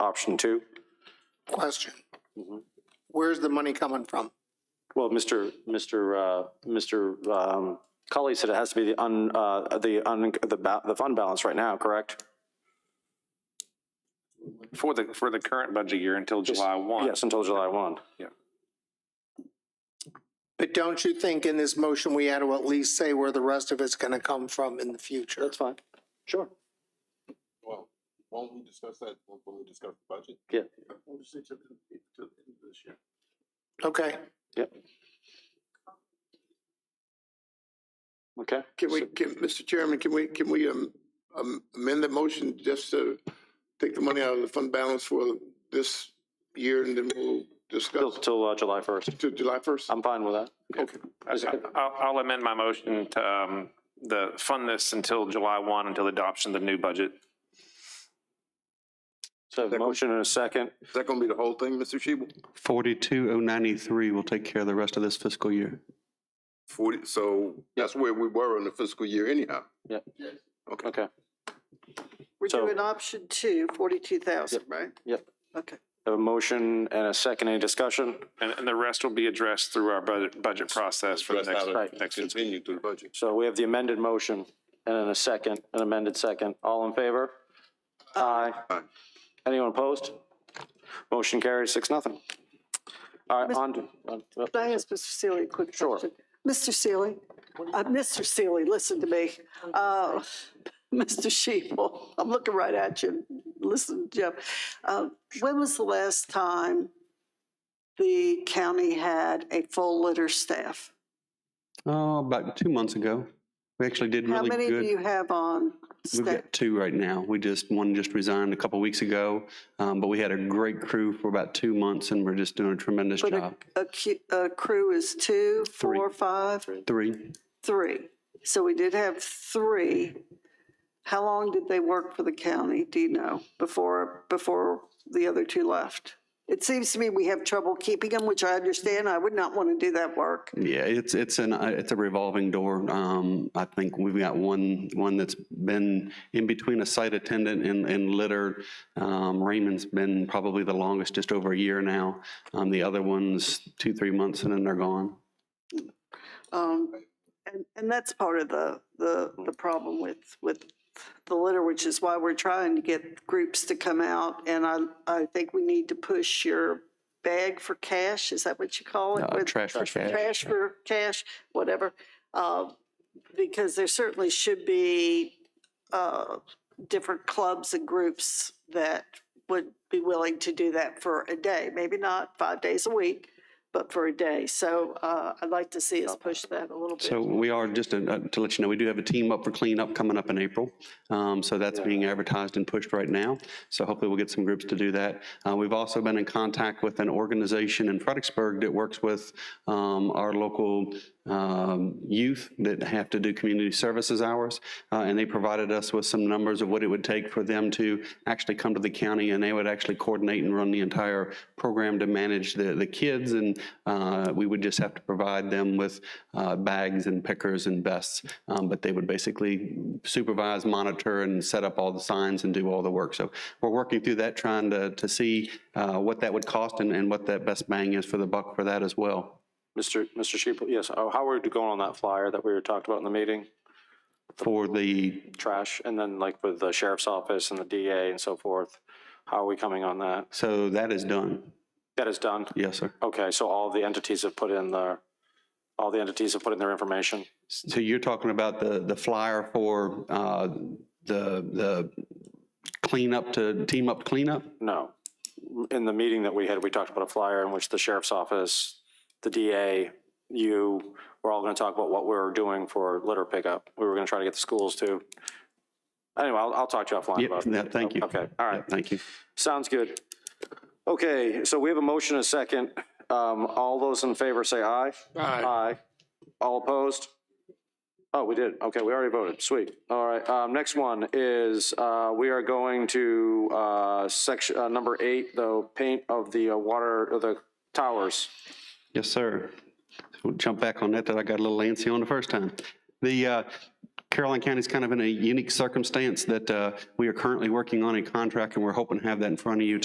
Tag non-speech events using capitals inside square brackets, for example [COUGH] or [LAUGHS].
option two. Question. Mm-hmm. Where's the money coming from? Well, Mr. Mr. uh, Mr. um, Cully said it has to be the un, uh, the un, the ba- the fund balance right now, correct? For the, for the current budget year until July one. Yes, until July one. But don't you think in this motion, we had to at least say where the rest of it's gonna come from in the future? That's fine. Sure. Well, won't we discuss that when when we discuss the budget? Yeah. We'll just say to the, to the end of this year. Okay, Okay. Can we, can, Mr. Chairman, can we, can we um, um, amend the motion just to take the money out of the fund balance for this year and then we'll Till, discuss till uh, July first. to July first? I'm fine with that. I- I'll, I'll amend my motion to, um, the, fund this until July one, until the adoption of the new budget. So motion and a second. Is that gonna be the whole thing, Mr. Shebel? 42093 will take care of the rest of this fiscal year. Forty, so that's where we were in the fiscal year anyhow. Okay. We're So- doing option two, forty-two thousand, right? Yep. Okay. A motion and a second. Any discussion? And, and the rest will be addressed through our budget, budget process for the Rest next, out Right. of- Continue through the budget. So we have the amended motion and then a second, an amended second. All in favor? Aye. Aye. Anyone opposed? Motion carries six, nothing. All right, Mis- on to, on- uh, Can I ask Mr. Seeley a quick Sure. question? Mr. Seeley, uh, Mr. Seeley, listen to me. Uh, [LAUGHS] Mr. Sheeple, I'm looking right at you. Listen, Jeff. Uh, when was the last time the county had a full litter staff? Oh, about two months ago. We actually did How really many do you good. have on We've staff? got two right now. We just, one just resigned a couple weeks ago, um, but we had a great crew for about two months and we're just doing a tremendous But job. a, a cu- a crew is two, Three. four, five? Three, Three. So we did have three. How long did they work for the county, do you know, before, before the other two left? It seems to me we have trouble keeping them, which I understand. I would not want to do that work. Yeah, it's, it's an, uh, it's a revolving door. Um, I think we've got one, one that's been in between a site attendant and, and litter. Um, Raymond's been probably the longest, just over a year now. Um, the other one's two, three months and then they're gone. Um, and, and that's part of the, the, the problem with, with the litter, which is why we're trying to get groups to come out. And I, I think we need to push your bag for cash, is that what you call it? Uh, With- Trash for cash. trash for cash, whatever, uh, because there certainly should be uh, different clubs and groups that would be willing to do that for a day, maybe not five days a week, but for a day. So uh, I'd like to see us push that a little bit. So we are, just uh, to let you know, we do have a team up for cleanup coming up in April. Um, So that's being advertised and pushed right now. So hopefully we'll get some groups to do that. Uh, We've also been in contact with an organization in Fredericksburg that works with um, our local um, youth that have to do community services hours. Uh, And they provided us with some numbers of what it would take for them to actually come to the county and they would actually coordinate and run the entire program to manage the, the kids. And uh, we would just have to provide them with uh, bags and pickers and vests. Um, But they would basically supervise, monitor, and set up all the signs and do all the work. So we're working through that, trying to, to see uh, what that would cost and, and what that best bang is for the buck for that as well. Mr. Mr. Sheeple, yes, oh, how are you going on that flyer that we were talked about in the meeting? For the, Trash, and then like with the sheriff's office and the DA and so forth, how are we coming on that? so that is done. That is done? Yes, sir. Okay, so all the entities have put in their, all the entities have put in their information? So you're talking about the, the flyer for uh, the, the cleanup to, team up cleanup? No. In the meeting that we had, we talked about a flyer in which the sheriff's office, the DA, you, we're all going to talk about what we're doing for litter pickup. We were going to try to get the schools to. Anyway, I'll, I'll talk to you offline Yep, about it. no, thank you. Okay, all right. Yeah, Thank you. Sounds good. Okay, so we have a motion, and a second. Um, all those in favor say aye. Aye. Aye. All opposed? Oh, we did. Okay, we already voted. Sweet. All right, um, next one is, uh, we are going to, uh, section, uh, number eight, the paint of the uh, water, of the towers. Yes, sir. We'll jump back on that, that I got a little antsy on the first time. The uh, Caroline County's kind of in a unique circumstance that uh, we are currently working on a contract, and we're hoping to have that in front of you